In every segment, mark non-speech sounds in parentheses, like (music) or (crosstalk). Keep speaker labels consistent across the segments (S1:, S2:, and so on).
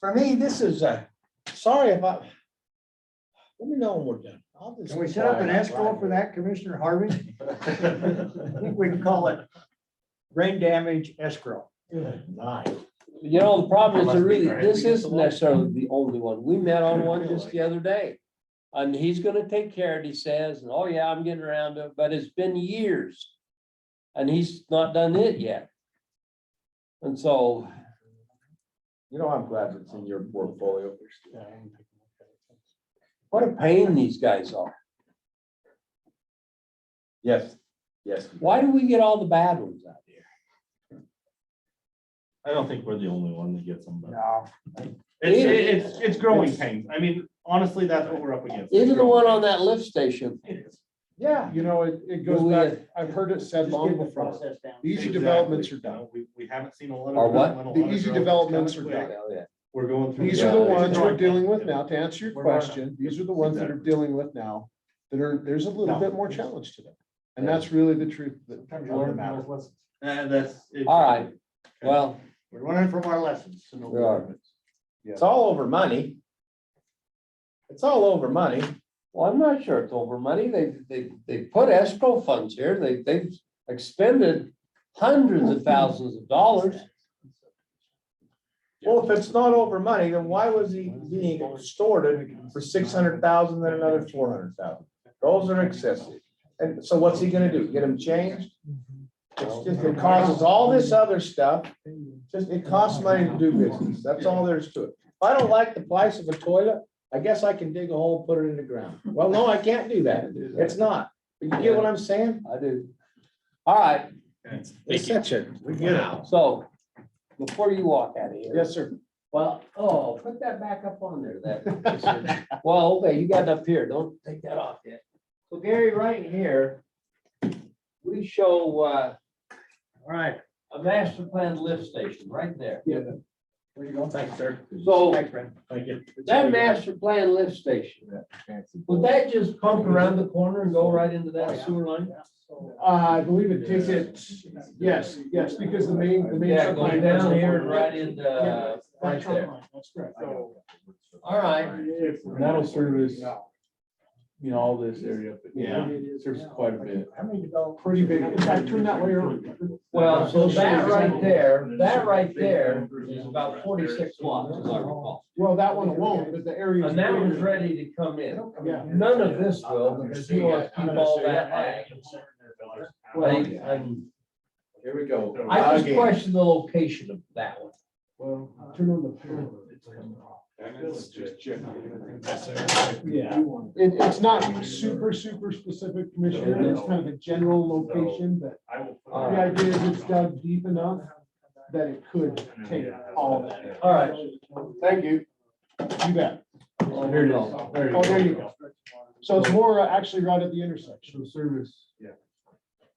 S1: For me, this is, uh, sorry if I, let me know when we're done. I'll just
S2: Can we set up an
S1: comply.
S2: escrow for that, Commissioner Harvey? I think we can call it rain damage escrow.
S1: (laughs) Good night.
S3: You know, the problem is,
S4: Must be
S3: there really,
S4: great.
S3: this isn't necessarily the only one. We met on one just the other day. And he's gonna take care of it, he says, and oh yeah, I'm getting around to it, but it's been years. And he's not done it yet. And so,
S4: You know, I'm glad it's in your portfolio.
S3: what a pain these guys are.
S4: Yes, yes.
S3: Why do we get all the bad ones out here?
S5: I don't think we're the only one that gets them, but
S2: No,
S5: it's, it's, it's growing pains. I mean, honestly, that's what we're up against.
S3: Even the one on that lift
S5: (laughs)
S3: station,
S5: It is.
S4: Yeah, you know, it, it goes
S3: We, uh,
S4: back, I've heard it said
S2: just
S4: long
S2: get the
S4: before,
S2: process down.
S4: these
S5: Exactly.
S4: developments are done.
S5: No, We, we haven't seen a lot of.
S3: Are what?
S5: development,
S4: The
S5: a lot of
S4: easy
S5: growth.
S4: developments are
S5: It's coming
S4: done.
S5: quick.
S3: Hell, Oh, yeah.
S5: We're going through.
S4: These are the
S3: Yeah.
S4: ones we're dealing with now, to answer your
S5: We're not-
S4: question, these are the ones that are dealing with now, that are, there's a little
S5: No.
S4: bit more challenge to them. And
S3: Yeah.
S4: that's really the truth that.
S2: Sometimes you learn
S4: Well,
S2: those lessons.
S5: And that's. it.
S3: all right, well,
S2: We're learning from our lessons. so no
S3: We are.
S2: more.
S1: It's all over money. It's all over money.
S3: well, I'm not sure it's over money. They, they, they put escrow funds here. They, they've expended hundreds of thousands of dollars.
S1: Well, if it's not over money, then why was he being extorted for six hundred thousand then another four hundred thousand? Those are excessive. And so what's he gonna do? Get them changed? It's just, it causes all this other stuff. Just, it costs money to do business. That's all there is to it. If I don't like the price of a toilet, I guess I can dig a hole, put it in the ground. Well, no, I can't do that. It's not. But you get what I'm saying?
S3: I do. All right,
S1: It's such a. We get it.
S3: so before you walk out of here,
S1: Yes, sir.
S3: well, oh, put that back up on there,
S1: (laughs)
S3: that. Well, okay, you got it up here. Don't take that off yet. So Gary, right here, we show, uh,
S2: All right.
S3: a master plan lift station right there.
S1: Where you going? Thanks, sir.
S3: So
S1: Thanks, friend. Thank you.
S3: that master plan lift station, would that just pump around the corner and go right into
S1: Oh,
S3: that sewer line?
S4: Uh, I believe it takes it, yes, yes, because the main, the main.
S3: Yeah, going
S4: subline
S3: down
S4: doesn't-
S3: here and right into, right there.
S2: That's correct.
S3: All right,
S6: And that'll service, you know, all this area, but
S5: Yeah.
S6: serves quite a bit.
S2: How many developers?
S4: Pretty big.
S2: In fact, turn that way around.
S3: well, so that right there, that right there is about forty-six watts, as I recall.
S4: Well, that one alone, but the area.
S3: And that one's ready to come in.
S4: Yeah.
S3: None of this will, because he wants to keep all that ag.
S6: Well,
S3: I, I'm-
S6: here we go.
S3: I just question the location of that one.
S4: Well, Uh, turn on the. Yeah. It, it's not super, super specific, Commissioner, it's kind of a general location, but the idea is it's dug deep enough that it could take all of that.
S3: All right,
S4: Thank you. You bet.
S3: well, here it is.
S4: Oh, there you go. So it's more uh, actually right at the intersection.
S6: service.
S5: Yeah.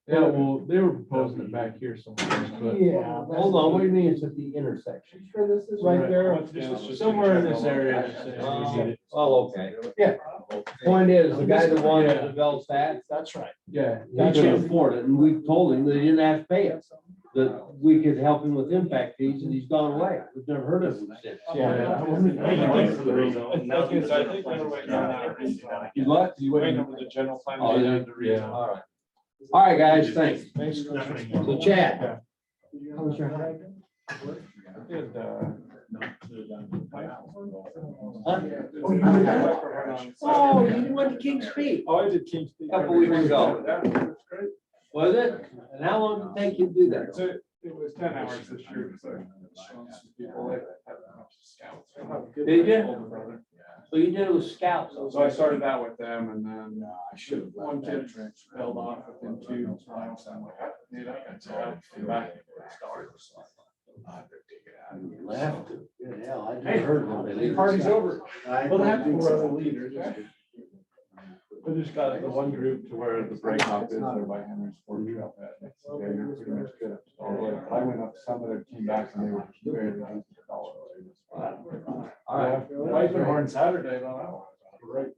S6: Yeah, well, they were proposing it back here somewhere,
S4: Yeah.
S3: Hold on, what do you mean it's at the intersection?
S4: Sure, this is right there.
S6: but somewhere in this area. they're saying we need it.
S3: Oh, okay.
S4: Yeah.
S3: Point is, the guy that wanted to develop that,
S4: That's right.
S6: Yeah.
S3: he couldn't afford it, and we told him that he didn't have to pay us. That we could help him with impact fees, and he's gone away. We've never heard of him since.
S6: Yeah. He's left, he's waiting.
S5: the general plan.
S3: Oh, yeah. All right. All right, guys, thanks.
S4: Thanks.
S3: So Chad,
S4: How was your hike?
S3: oh, you went to King's Peak
S5: Oh, I did King's.
S3: a couple weeks ago, was it? And how long did it take you to do that?
S5: It was ten hours this year, so.
S3: Did you? So you did it with scouts?
S5: So I started out with them and uh, then
S4: I should have.
S5: one kid fell off within two miles. I'm like, I need that. So I back and started. uh,
S3: Left. Good hell, I
S5: Hey,
S3: just heard one.
S5: the party's over.
S4: Well,
S5: Well, that's one of the leaders. I just got the one group to where the break off is there by Henry's Ford Trail. pad. Next day, you're pretty much good. All the way. But I went up some of their team backs and they were very. nice.
S3: All right.
S5: Life and horn Saturday, though. Right.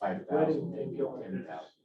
S4: Five thousand.